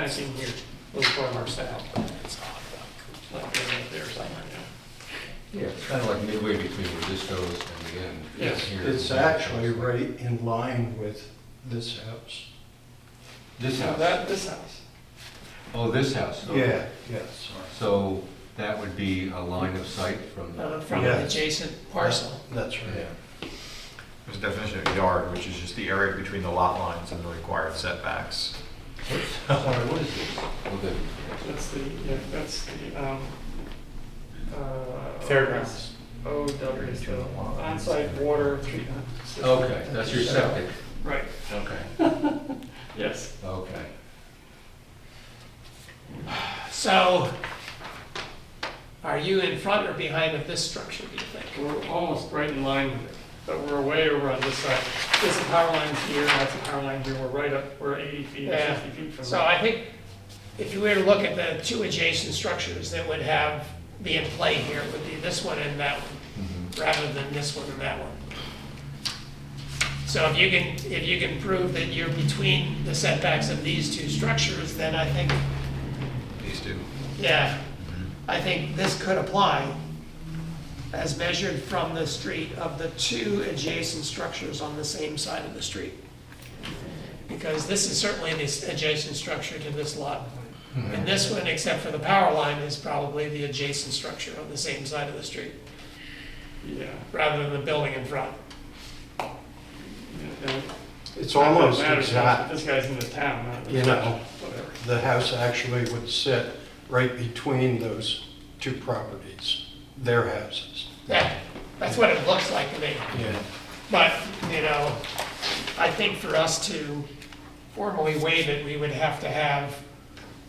fencing here, a little farther south. Like they're up there somewhere, yeah. Yeah, it's kind of like midway between where this goes and the end. Yes. Here. It's actually right in line with this house. This Now, house, that, this house, oh, this house. Yeah, yeah, sorry. So that would be a line of sight from, uh, from an Yeah. adjacent parcel. That's right. There's a definition of yard, which is just the area between the lot lines and the required setbacks. sorry, what is this? Oh, the- That's the, yeah, that's the, um, uh. Fairgrounds. O W is the onsite water treatment system. Okay, that's your septic, Right, okay, yes. okay. So, are you in front or behind of this structure, do you think? We're almost right in line with it, but we're way over on this side. There's a power line here, that's a power line here, we're right up, we're 80 feet, or Yeah. 60 feet from So the I think if you were to look at the two adjacent structures that would have, be in play here, would be this one and that one, rather than this one and that one. So if you can, if you can prove that you're between the setbacks of these two structures, then I think, These two. yeah, I think this could apply as measured from the street of the two adjacent structures on the same side of the street. Because this is certainly the adjacent structure to this lot. And this one, except for the power line, is probably the adjacent structure on the same side of the street, Yeah, rather than the building in front. yeah, yeah. It's almost Not that it matters, exact, This guy's in the town, not the you know, whatever. the house actually would sit right between those two properties, their houses. Yeah, that's what it looks like to me. Yeah. But, you know, I think for us to formally waive it, we would have to have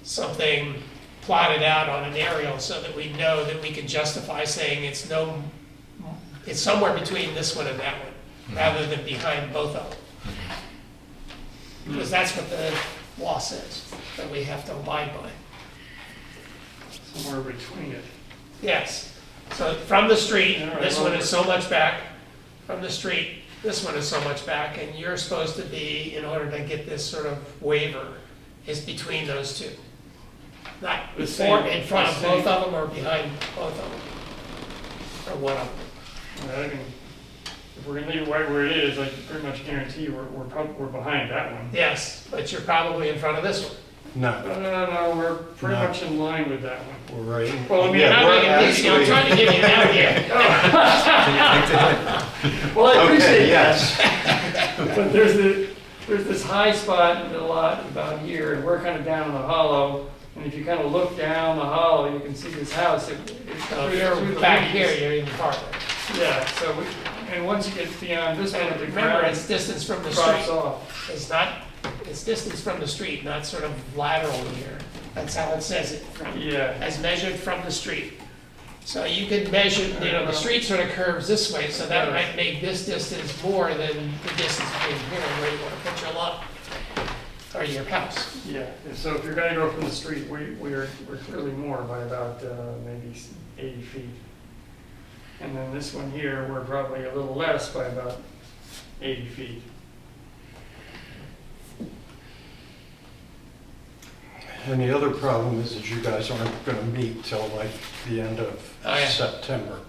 something plotted out on an aerial so that we know that we can justify saying it's no, it's somewhere between this one and that one, rather than behind both of them. Because that's what the law says, that we have to abide by. somewhere between it. Yes, so from the street, All right, this one well- is so much back, from the street, this one is so much back, and you're supposed to be, in order to get this sort of waiver, is between those two. Not The before, same- in front of the both same. of them or behind both of them, or one of them. I mean, If we're gonna leave it right where it is, I can pretty much guarantee we're, we're prob- we're behind that one. Yes, but you're probably in front of this one. No, No, no, no, no, we're pretty No. much in line with that one. we're right. Well, I mean, Yeah, I'm we're making this- I'm actually- trying to give you an out here. Well, I Okay, appreciate that, yes, but there's the, there's this high spot in the lot about here, and we're kind of down in the hollow. And if you kind of look down the hollow, you can see this house, it, it's So through if there through you're the Oh, back here, leaves. you're even farther. Yeah, so we, and once you get beyond this one, And the remember, ground it's distance from the street. drops off. It's not, it's distance from the street, not sort of lateral here. That's how it says it, from, Yeah, as measured from the street. So you could measure, you know, the street sort of curves this way, so that might make this distance more than the distance between here and where you want to put your lot or your house. yeah, And so if you're gonna go from the street, we, we're, we're clearly more by about, uh, maybe s- eighty feet. And then this one here, we're probably a little less by about eighty feet. and the other problem is that you guys aren't gonna meet till like the end of Oh, yeah. September.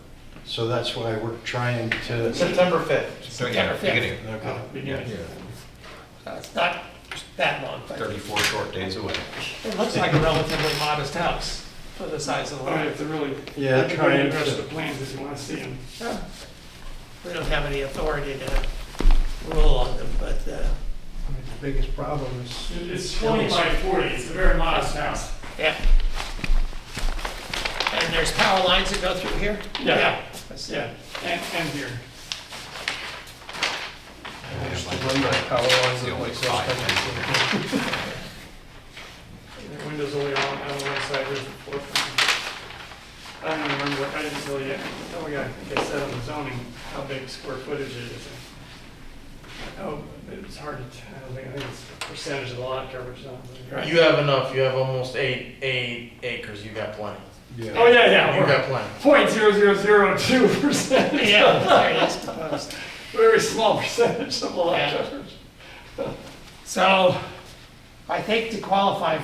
So that's why we're trying to, September fifth. September fifth. Beginning, okay. Beginning. Oh, Yeah. So Uh, It's not that long, but thirty-four short days away. it looks like a relatively modest house for the size of the All right, lot. it's a really. Yeah, trying The rest of to, the plans, if you wanna see them. Yeah. We don't have any authority to rule on them, but, I uh, mean, The biggest problem is, It's twenty by forty, it's a very modest house. Yeah. And there's power lines that go through here? Yeah. I see. Yeah, and, and here. is to run that power lines The that only like five. those. The windows only on, on one side, there's the fourth one. I don't remember, what- I didn't tell you, oh yeah, I think I said on the zoning, how big square footage it is. Oh, it's hard to tell, I think I think it's percentage of the lot coverage, not. You have enough. You have almost eight eight acres. You got plenty. Oh, yeah, yeah, yeah, You we're got plenty. point zero zero zero two percent. Yeah, there it is proposed. Very small percentage of the lot Yeah. coverage. So I think to qualify